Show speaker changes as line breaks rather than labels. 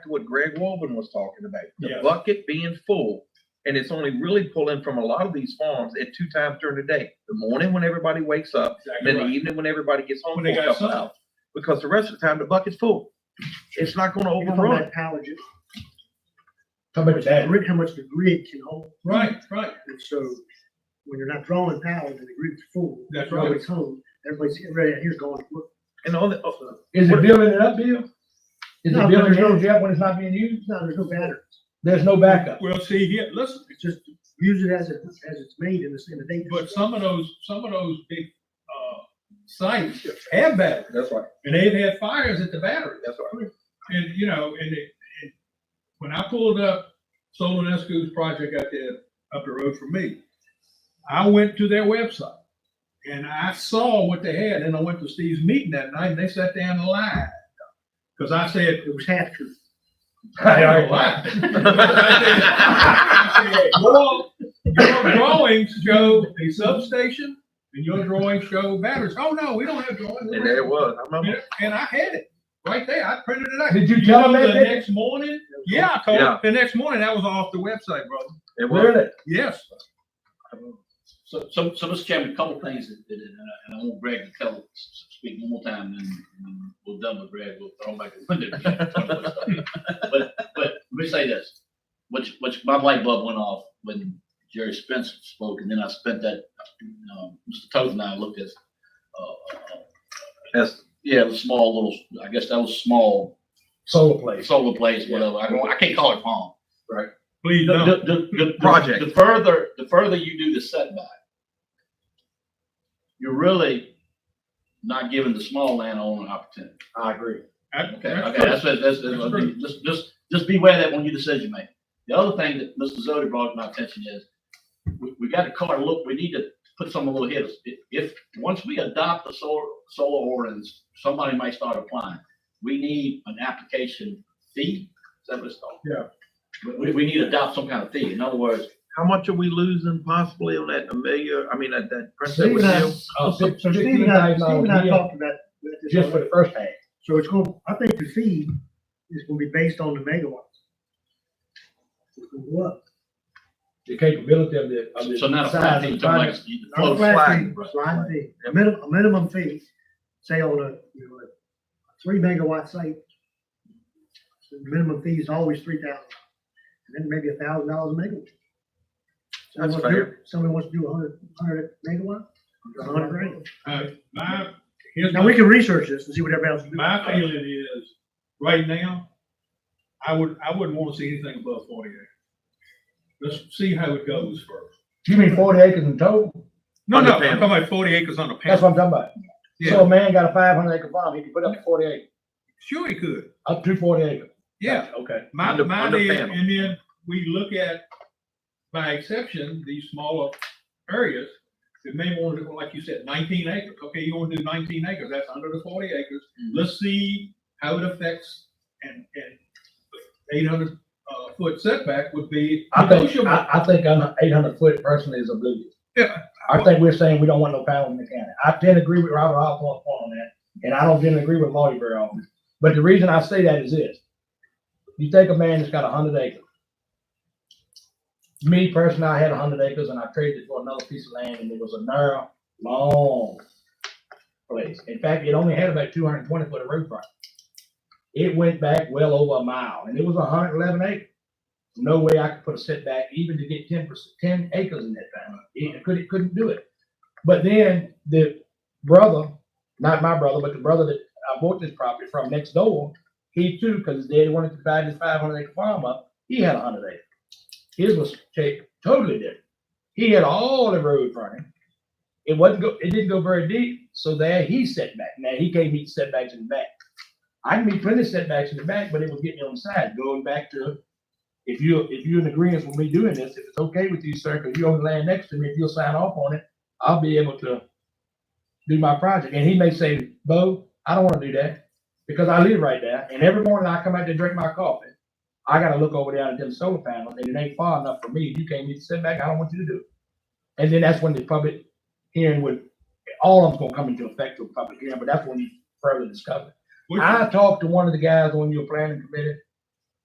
what Greg Walvin was talking about, the
Yeah.
bucket being full. And it's only really pulling from a lot of these farms at two times during the day, the morning when everybody wakes up, and
Exactly
then the
right.
evening when everybody gets home.
When they
for a
got
couple
sun.
hours. Because the rest of the time, the bucket's full. It's not gonna
You know how
overrun.
much power gen-
How about
the
that?
grid, how much the grid can hold,
Right, right.
and so when you're not drawing power, then the grid's full.
That's
Now
right.
It's home, everybody's, everybody out here's going, look,
And on the, oh,
so,
Is it building it up, Bill? Is
No,
it building it
no, no.
up yet when it's not being used?
no, there's no batteries.
There's no backup.
Well, see, here, listen,
It's just, use it as it, as it's made in the, in the data.
but some of those, some of those big, uh, sites have batteries,
that's right,
and they've had fires at the battery.
that's right.
And, you know, and it, and when I pulled up Solonescu's project out there, up the road from me, I went to their website and I saw what they had. And I went to Steve's meeting that night and they sat down and lied. Cause I said,
It was half true.
I don't lie. I said, "Your- Your drawings show a substation and your drawings show batteries. Oh, no, we don't have drawings.
And there it was, I remember.
And I had it right there. I printed it out.
Did you tell
know
them
The
that?
next morning, yeah, I
Yeah.
called, the next morning, that was off the website, brother.
It was,
Really?
Yes.
So, so, so, Mr. Chairman, a couple of things that, that, and I, and I want Greg to tell, s- s- speak one more time, and then then we'll done with Greg, we'll throw him back in the window. But, but let me say this, which, which, my light bulb went off when Jerry Spencer spoke, and then I spent that, um, Mr. Toth and I looked at, uh, uh,
that's,
yeah, the small little, I guess that was small
Solar place.
solar place, whatever, I don't, I can't call it farm.
Please
The,
don't.
the- the- the-
Project.
The further, the further you do the setback, you're really not giving the small landowner an opportunity.
I agree.
That-
Okay,
that's
okay,
true.
that's, that's, that's,
That's true.
just, just, just beware that when you decision make. The other thing that Mr. Zodi brought to my attention is, we, we got a car, look, we need to put some little hits. If, if, once we adopt the solar, solar ordinance, somebody might start applying. We need an application fee, is that what it's called?
Yeah.
We- We, we need to adopt some kind of fee. In other words,
how much are we losing possibly on that Amelia, I mean, that, that Prince
Steve
Edward
and I-
Hill?
Oh, So Steve and I, Steve and I talked about. about this
Just for the first half.
So it's going, I think the fee is gonna be based on the megawatts. It's gonna go up.
The capability of the, of the.
so not a flat
size
fee,
of the
something like
project.
the
Not a
flow.
flat fee,
sliding,
sliding fee. A minimum, a minimum fee, say on a, you know, a three megawatt site. the Minimum fee is always three thousand, and then maybe a thousand dollars a megawatt.
That's
Somebody wants to do- Somebody wants to do a hundred, hundred megawatt, a hundred grand.
Uh, My, here's
Now, we
my,
can research this and see what everybody else is doing.
my feeling is, right now, I would, I wouldn't want to see anything above forty acres. Let's see how it goes first.
You mean forty acres in total?
No,
On the
no, I'm
panel.
talking about forty acres on a
That's what
panel.
I'm talking about. So
Yeah,
a man got a five hundred acre farm, he can put up to forty acres,
sure he could.
up to forty acres.
Yeah.
Okay.
My,
Under-
my,
under
deal-
panel.
and then we look at, by exception, these smaller areas that may want to, like you said, nineteen acres. Okay, you want to do nineteen acres, that's under the forty acres.
Mm.
Let's see how it affects and, and eight hundred, uh, foot setback would be
I think,
negotiable.
I, I think an eight hundred foot person is oblivious.
Yeah.
I think we're saying we don't want no power in the county. I tend to agree with Robert Osborne on that, and I don't tend to agree with Marty very often. But the reason I say that is this. You take a man that's got a hundred acres. Me personally, I had a hundred acres and I traded it for another piece of land and it was a narrow, long place. In fact, it only had about two hundred and twenty foot of roof front. It went back well over a mile and it was hundred and eleven acres no way I could put a setback even to get ten percent, ten acres in that thing. It couldn't, couldn't do it. But then the brother, not my brother, but the brother that I bought this property from next door, he too, because his daddy wanted to divide his five hundred acre farm up, he had a hundred acres. His was ta- totally different. He had all the road frontage. It wasn't go, it didn't go very deep, so there he set back. Now, he can't meet setbacks in the back. I can meet plenty of setbacks in the back, but it was getting on the side, going back to if you, if you're in agreement with me doing this, if it's okay with you, sir, because you own the land next to me, if you'll sign off on it, I'll be able to do my project. And he may say, Bo, I don't want to do that because I live right there. And every morning I come out to drink my coffee, I gotta look over there at them solar panels and it ain't far enough for me. You can't even sit back. I don't want you to do it. And then that's when the public hearing would, all of them's gonna come into effect to a public hearing, but that's when you further discover.
Which-
I talked to one of the guys on your planning committee